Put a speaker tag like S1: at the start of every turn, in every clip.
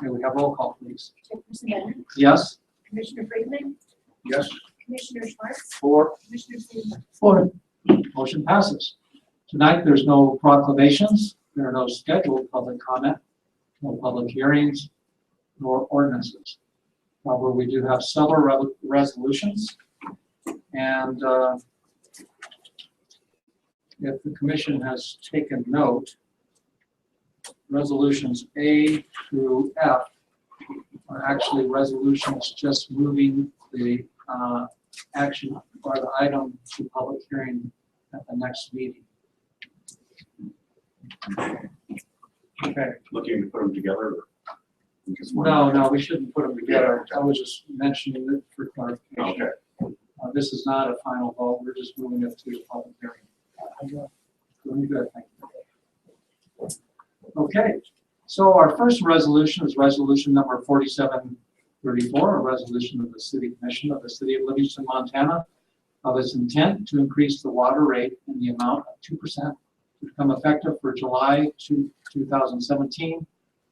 S1: May we have roll call, please?
S2: Chairperson Bennett,
S1: Yes?
S2: Commissioner Freeman,
S1: Yes.
S2: Commissioner Schwartz,
S1: Four.
S2: Commissioner Seaver.
S1: Four. Motion passes. Tonight, there's no proclamations, there are no scheduled public comment, no public hearings, nor ordinances. However, we do have several rev- resolutions, and uh, if the commission has taken note, resolutions A through F are actually resolutions just moving the uh, action or the item to public hearing at the next meeting. Okay,
S3: looking to put them together? Because one-
S1: no, no, we shouldn't put them together. I was just mentioning it for clarification.
S3: Okay,
S1: Uh, This is not a final vote, we're just moving it to a public hearing. Doing good, thank you. Okay, so our first resolution is resolution number forty-seven thirty-four, a resolution of the city commission of the city of Livingston, Montana, of its intent to increase the water rate in the amount of two percent to become effective for July two, two thousand seventeen,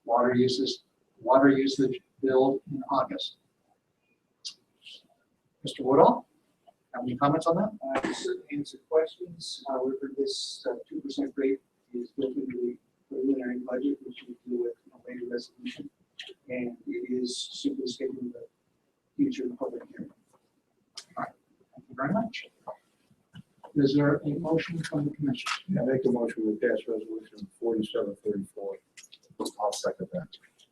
S1: water uses, water usage bill in August. Mr. Woodall? Have any comments on that?
S4: Uh, to certainly answer questions. However, this uh, two percent rate is built into the preliminary budget, which we deal with in a later resolution. And it is simply stated in the future public hearing.
S1: Thank you very much. Is there a motion from the commission?
S5: I make a motion to pass resolution forty-seven thirty-four. I'll second that.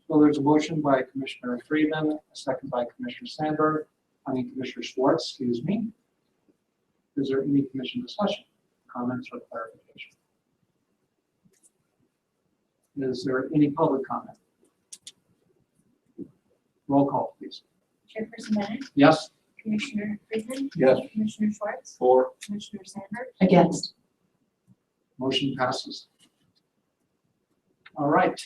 S1: So there's a motion by Commissioner Freeman, a second by Commissioner Sandberg, I mean Commissioner Schwartz, excuse me. Is there any commission discussion, comments or clarification? Is there any public comment? Roll call, please.
S2: Chairperson Bennett,
S1: Yes?
S2: Commissioner Freeman,
S5: Yes.
S2: Commissioner Schwartz,
S3: four,
S2: Commissioner Sandberg.
S6: Against.
S1: Motion passes. All right.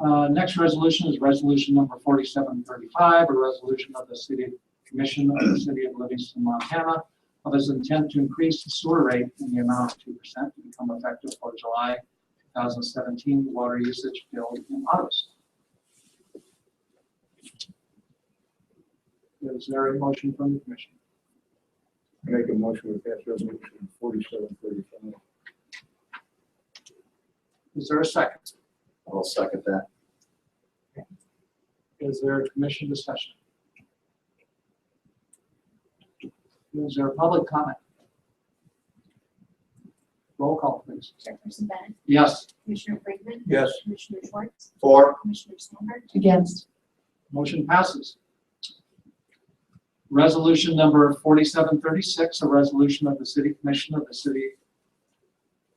S1: Uh, Next resolution is resolution number 4735, a resolution of the City Commission of the City of Livingston, Montana, of its intent to increase the sewer rate in the amount of 2% to become effective for July 2017 water usage bill in August. Is there a motion from the commission?
S5: I make a motion to pass resolution forty-seven thirty-five.
S1: Is there a second?
S3: I'll second that.
S1: Is there a commission discussion? Is there a public comment? Roll call, please.
S2: Chairperson Bennett,
S1: Yes,
S2: Commissioner Freeman,
S5: Yes.
S2: Commissioner Schwartz,
S3: Four,
S2: Commissioner Sandberg.
S6: Against.
S1: motion passes. Resolution number 4736, a resolution of the City Commission of the City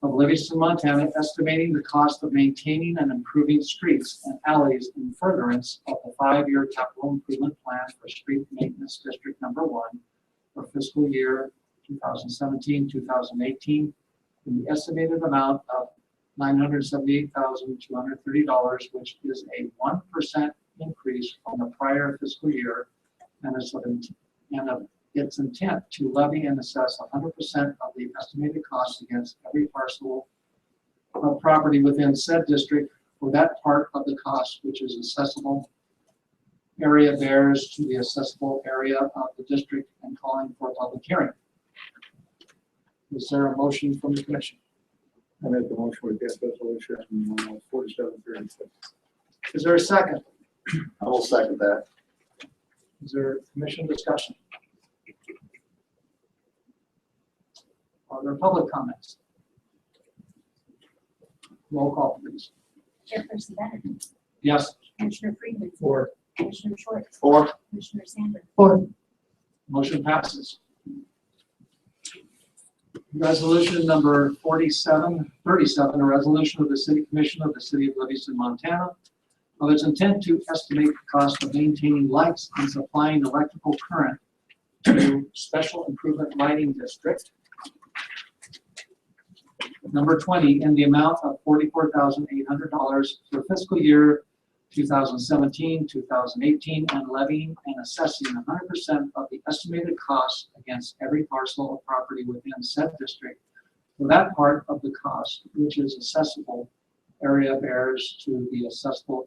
S1: of Livingston, Montana, estimating the cost of maintaining and improving streets and alleys in furtherance of the five-year capital improvement plan for street maintenance district number one for fiscal year 2017, 2018, in the estimated amount of $978,230, which is a 1% increase from the prior fiscal year and is of int- and of its intent to levy and assess hundred percent of the estimated cost against every parcel of property within said district for that part of the cost which is accessible area bears to the accessible area of the district and calling for a public hearing. Is there a motion from the commission?
S5: I make a motion to pass resolution forty-seven thirty-six.
S1: Is there a second?
S3: I will second that.
S1: Is there commission discussion? Are there public comments? Roll call, please.
S2: Chairperson Bennett,
S1: Yes,
S2: Commissioner Freeman,
S5: Four.
S2: Commissioner Schwartz,
S3: Four,
S2: Commissioner Sandberg.
S6: Four.
S1: motion passes. Resolution number 4737, a resolution of the City Commission of the City of Livingston, Montana, of its intent to estimate the cost of maintaining lights and supplying electrical current to Special Improvement Lighting District number 20 in the amount of $44,800 for fiscal year 2017, 2018, and levying and assessing 100% of the estimated cost against every parcel of property within said district for that part of the cost which is accessible area of errors to the assessable